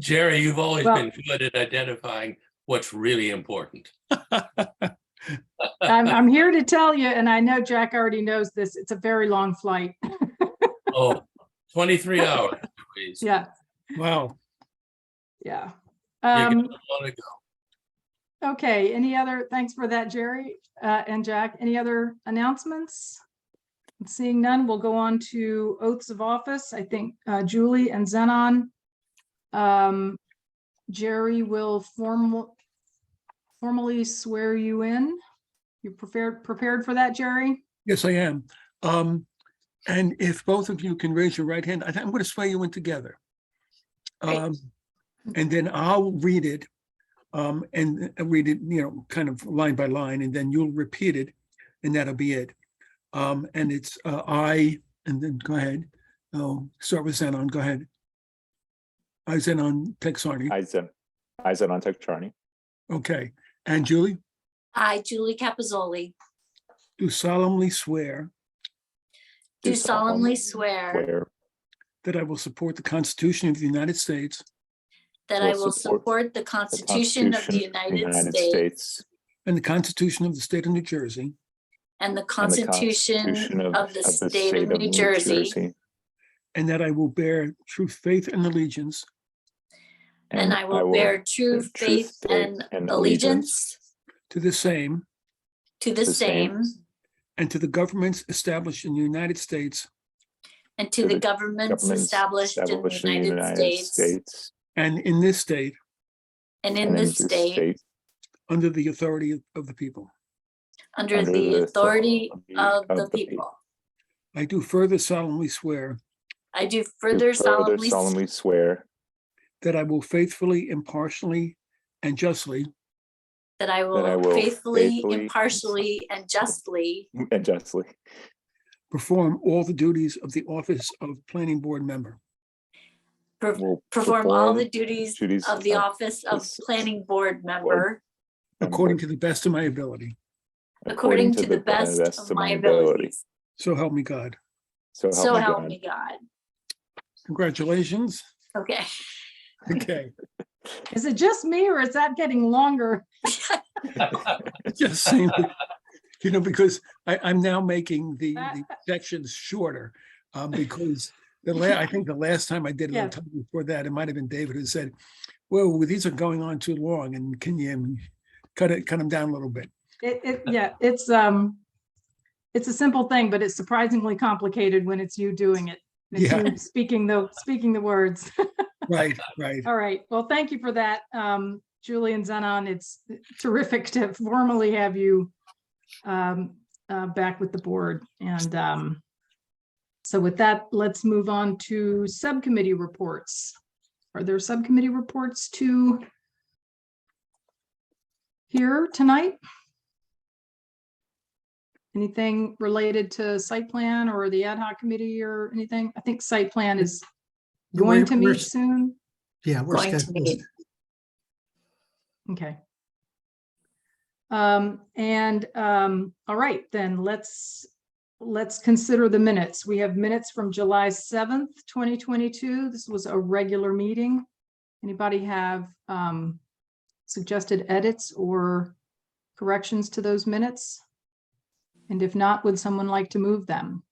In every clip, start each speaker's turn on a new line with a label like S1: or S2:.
S1: Jerry, you've always
S2: Well-
S1: been good at identifying what's really important.
S2: I'm, I'm here to tell you, and I know Jack already knows this, it's a very long flight.
S1: Oh, 23 hours. please.
S2: Yeah,
S3: Wow.
S2: yeah.
S1: You
S2: Um,
S1: got a lot to go.
S2: okay, any other, thanks for that, Jerry, uh, and Jack. Any other announcements? Seeing none, we'll go on to oaths of office. I think, uh, Julie and Zenon. Um, Jerry will formal, formally swear you in. You prepared, prepared for that, Jerry?
S3: Yes, I am. Um, and if both of you can raise your right hand, I think I'm going to swear you in together.
S2: Great.
S3: Um, and then I'll read it. Um, and uh, read it, you know, kind of line by line, and then you'll repeat it, and that'll be it. Um, and it's, uh, I, and then go ahead. Oh, start with Zenon, go ahead. I, Zenon Texani,
S4: Aizen, Aizen on Charney.
S3: okay. And Julie,
S5: I, Julie Capizzoli,
S3: do solemnly swear
S5: do solemnly swear
S4: Where
S3: that I will support the Constitution of the United States
S5: that I
S4: will
S5: will
S4: support
S5: support the Constitution of the United States
S3: and the Constitution of the State of New Jersey,
S5: and
S4: and
S5: the
S4: the
S5: Constitution of the State
S4: State
S5: of New Jersey,
S3: and that I will bear true faith and allegiance
S5: and I will bear true faith and allegiance
S3: to the same
S5: to the
S4: the same
S5: same
S3: and to the governments established in the United States
S5: and to the governments
S4: governments
S5: established in the United States
S3: and in this state
S5: and
S4: and
S5: in this state
S3: under the authority of- of the people.
S5: under
S4: under
S5: the
S4: the
S5: authority
S4: authority
S5: of
S4: of
S5: the
S4: the
S5: people.
S3: I do further solemnly swear
S5: I do
S4: do
S5: further
S4: further
S5: solemnly
S4: solemnly swear
S3: that I will faithfully, impartially, and justly
S5: that I
S4: I
S5: will
S4: will
S5: faithfully,
S4: faithfully,
S5: impartially, and justly
S4: and justly
S3: perform all the duties of the office of planning board member
S5: per-
S4: will
S5: perform all the duties
S4: duties
S5: of the
S4: of
S5: office of
S4: this
S5: planning board member
S3: according to the best of my ability.
S5: according to the best of my abilities.
S3: So help me God.
S4: So
S5: So help
S4: God.
S5: me God.
S3: Congratulations.
S5: Okay.
S3: Okay,
S2: Is it just me or is that getting longer?
S3: just saying, you know, because I, I'm now making the the sections shorter. Um, because the la, I think the last time I did it, or
S2: Yeah.
S3: the time before that, it might have been David who said, well, these are going on too long and can you um, cut it, cut them down a little bit?
S2: It, it, yeah, it's, um, it's a simple thing, but it's surprisingly complicated when it's you doing it. and it's
S3: Yeah.
S2: you Speaking the, speaking the words.
S3: Right, right.
S2: All right. Well, thank you for that. Um, Julie and Zenon, it's terrific to formally have you um, uh, back with the board. And um, so with that, let's move on to subcommittee reports. Are there subcommittee reports to here tonight? Anything related to site plan or the ad hoc committee or anything? I think site plan is going
S6: We're-
S2: to
S6: we're-
S2: meet soon.
S6: Yeah, we're
S5: Going to
S6: scheduled.
S5: meet.
S2: Okay. Um, and, um, all right, then let's, let's consider the minutes. We have minutes from July seventh, twenty twenty-two. This was a regular meeting. Anybody have, um, suggested edits or corrections to those minutes? And if not, would someone like to move them?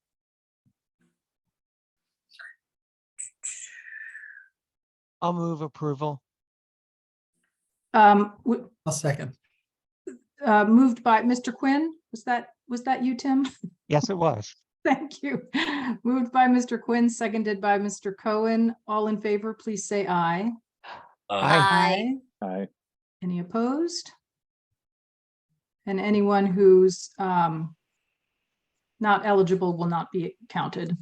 S7: I'll move approval.
S2: Um, w-
S6: I'll second.
S2: uh, moved by Mr. Quinn, was that, was that you, Tim?
S7: Yes, it was.
S2: Thank you. Moved by Mr. Quinn, seconded by Mr. Cohen. All in favor, please say aye.
S1: Uh,
S7: Aye.
S5: I,
S4: I
S2: Any opposed? And anyone who's um, not eligible will not be counted.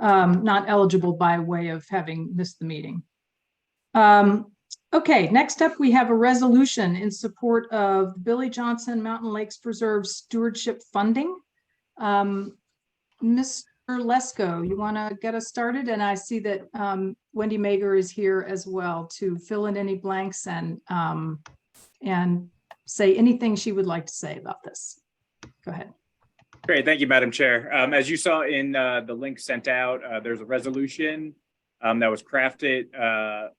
S2: Um, Not eligible by way of having missed the meeting. Um, Okay, next up, we have a resolution in support of Billy Johnson Mountain Lakes Preserve Stewardship Funding. Um, Mr. Lesko, you want to get us started? And I see that um, Wendy Mager is here as well to fill in any blanks and, um, and say anything she would like to say about this. Go ahead.
S8: Great, thank you, Madam Chair. Um, As you saw in uh, the link sent out, uh, there's a resolution um, that was crafted uh,